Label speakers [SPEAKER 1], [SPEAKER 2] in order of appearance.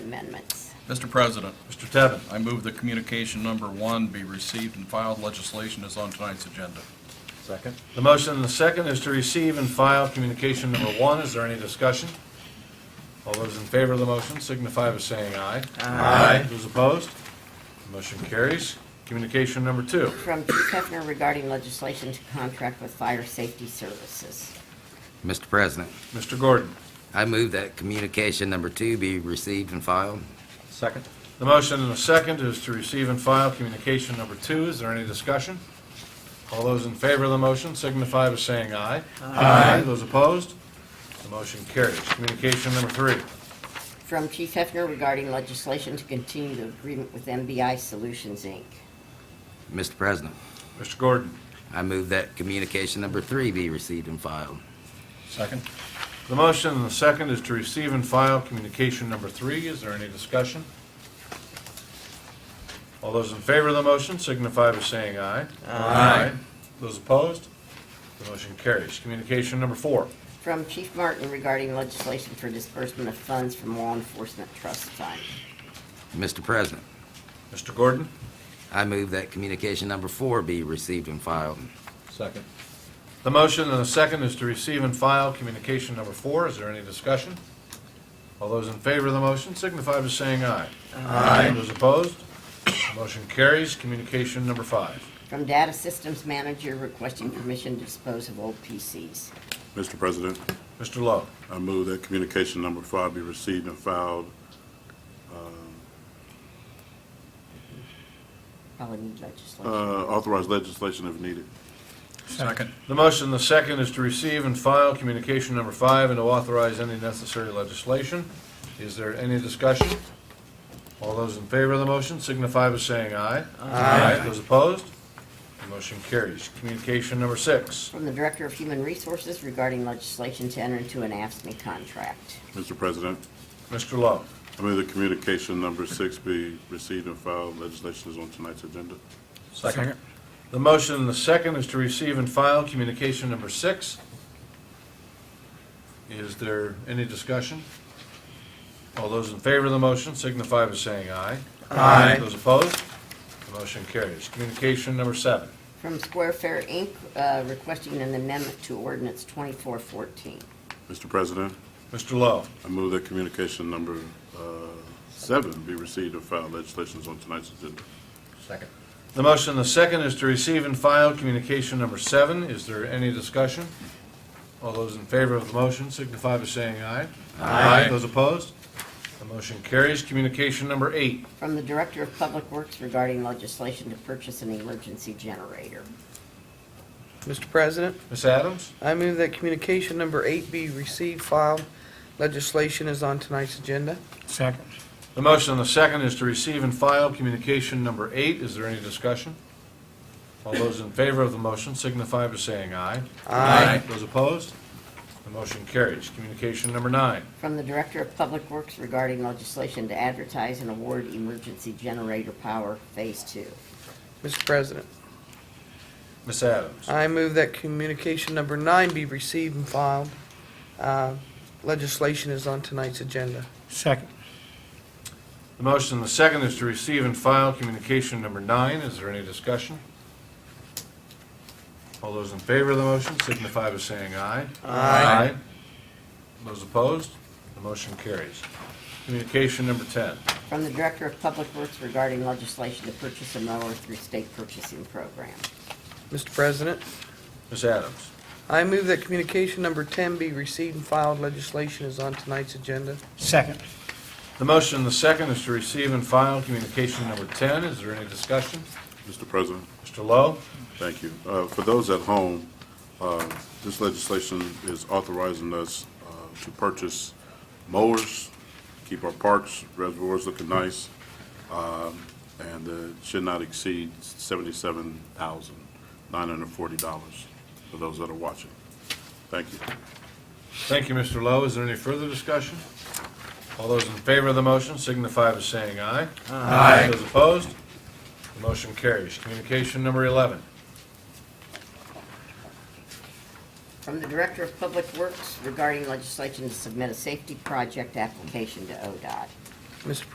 [SPEAKER 1] amendments.
[SPEAKER 2] Mr. President,
[SPEAKER 3] Mr. Tevin.
[SPEAKER 2] I move that communication number one be received and filed. Legislation is on tonight's agenda.
[SPEAKER 4] Second.
[SPEAKER 3] The motion and the second is to receive and file communication number one. Is there any discussion? All those in favor of the motion signify by saying aye. Aye. Those opposed? Motion carries. Communication number two.
[SPEAKER 1] From Chief Hefner regarding legislation to contract with fire safety services.
[SPEAKER 5] Mr. President,
[SPEAKER 3] Mr. Gordon.
[SPEAKER 5] I move that communication number two be received and filed.
[SPEAKER 4] Second.
[SPEAKER 3] The motion and the second is to receive and file communication number two. Is there any discussion? All those in favor of the motion signify by saying aye. Aye. Those opposed? The motion carries. Communication number three.
[SPEAKER 1] From Chief Hefner regarding legislation to continue the agreement with MBI Solutions, Inc.
[SPEAKER 5] Mr. President,
[SPEAKER 3] Mr. Gordon.
[SPEAKER 5] I move that communication number three be received and filed.
[SPEAKER 2] Second.
[SPEAKER 3] The motion and the second is to receive and file communication number three. Is there any discussion? All those in favor of the motion signify by saying aye. Aye. Those opposed? The motion carries. Communication number four.
[SPEAKER 1] From Chief Martin regarding legislation for disbursement of funds from law enforcement trust fund.
[SPEAKER 5] Mr. President,
[SPEAKER 3] Mr. Gordon?
[SPEAKER 5] I move that communication number four be received and filed.
[SPEAKER 4] Second.
[SPEAKER 3] The motion and the second is to receive and file communication number four. Is there any discussion? All those in favor of the motion signify by saying aye. Aye. Those opposed? The Motion carries. Communication number five.
[SPEAKER 1] From Data Systems Manager requesting permission to dispose of old PCs.
[SPEAKER 6] Mr. President,
[SPEAKER 3] Mr. Lowe?
[SPEAKER 6] I move that communication number five be received and filed. uh,
[SPEAKER 1] Probably need legislation.
[SPEAKER 6] Uh, Authorize legislation if needed.
[SPEAKER 2] Second.
[SPEAKER 3] The motion, the second, is to receive and file communication number five and to authorize any necessary legislation. Is there any discussion? All those in favor of the motion signify by saying aye. Aye. Those opposed? The motion carries. Communication number six.
[SPEAKER 1] From the Director of Human Resources regarding legislation to enter into an AFSCME E contract.
[SPEAKER 6] Mr. President,
[SPEAKER 3] Mr. Lowe.
[SPEAKER 6] I move that communication number six be received and filed. Legislation is on tonight's agenda.
[SPEAKER 4] Second.
[SPEAKER 3] The motion, and the second, is to receive and file communication number six. Is there any discussion? All those in favor of the motion signify by saying aye. Aye. Those opposed? The motion carries. Communication number seven.
[SPEAKER 1] From Square Fair Inc., uh, requesting an amendment to ordinance 2414.
[SPEAKER 6] Mr. President,
[SPEAKER 3] Mr. Lowe.
[SPEAKER 6] I move that communication number uh, seven be received and filed. Legislation is on tonight's agenda.
[SPEAKER 4] Second.
[SPEAKER 3] The motion, the second, is to receive and file communication number seven. Is there any discussion? All those in favor of the motion signify by saying aye. Aye. Those opposed? The motion carries. Communication number eight.
[SPEAKER 1] From the Director of Public Works regarding legislation to purchase an emergency generator.
[SPEAKER 7] Mr. President,
[SPEAKER 3] Ms. Adams?
[SPEAKER 7] I move that communication number eight be received, filed. Legislation is on tonight's agenda.
[SPEAKER 8] Second.
[SPEAKER 3] The motion, the second, is to receive and file communication number eight. Is there any discussion? All those in favor of the motion signify by saying aye. Aye. Those opposed? The motion carries. Communication number nine.
[SPEAKER 1] From the Director of Public Works regarding legislation to advertise and award emergency generator power Phase Two.
[SPEAKER 7] Mr. President,
[SPEAKER 3] Ms. Adams?
[SPEAKER 7] I move that communication number nine be received and filed. Uh, Legislation is on tonight's agenda.
[SPEAKER 8] Second.
[SPEAKER 3] The motion, the second, is to receive and file communication number nine. Is there any discussion? All those in favor of the motion signify by saying aye. Aye. Those opposed? The motion carries. Communication number 10.
[SPEAKER 1] From the Director of Public Works regarding legislation to purchase a mower through state purchasing program.
[SPEAKER 7] Mr. President,
[SPEAKER 3] Ms. Adams?
[SPEAKER 7] I move that communication number 10 be received and filed. Legislation is on tonight's agenda.
[SPEAKER 8] Second.
[SPEAKER 3] The motion, the second, is to receive and file communication number 10. Is there any discussion?
[SPEAKER 6] Mr. President,
[SPEAKER 3] Mr. Lowe?
[SPEAKER 6] Thank you. Uh, For those at home, uh, this legislation is authorizing us uh, to purchase mowers, keep our parks, reservoirs looking nice, um, and uh, should not exceed $77,940 for those that are watching. Thank you.
[SPEAKER 3] Thank you, Mr. Lowe. Is there any further discussion? All those in favor of the motion signify by saying aye. Aye. Those opposed? The motion carries. Communication number 11.
[SPEAKER 1] From the Director of Public Works regarding legislation to submit a safety project application to ODOT.
[SPEAKER 7] Mr.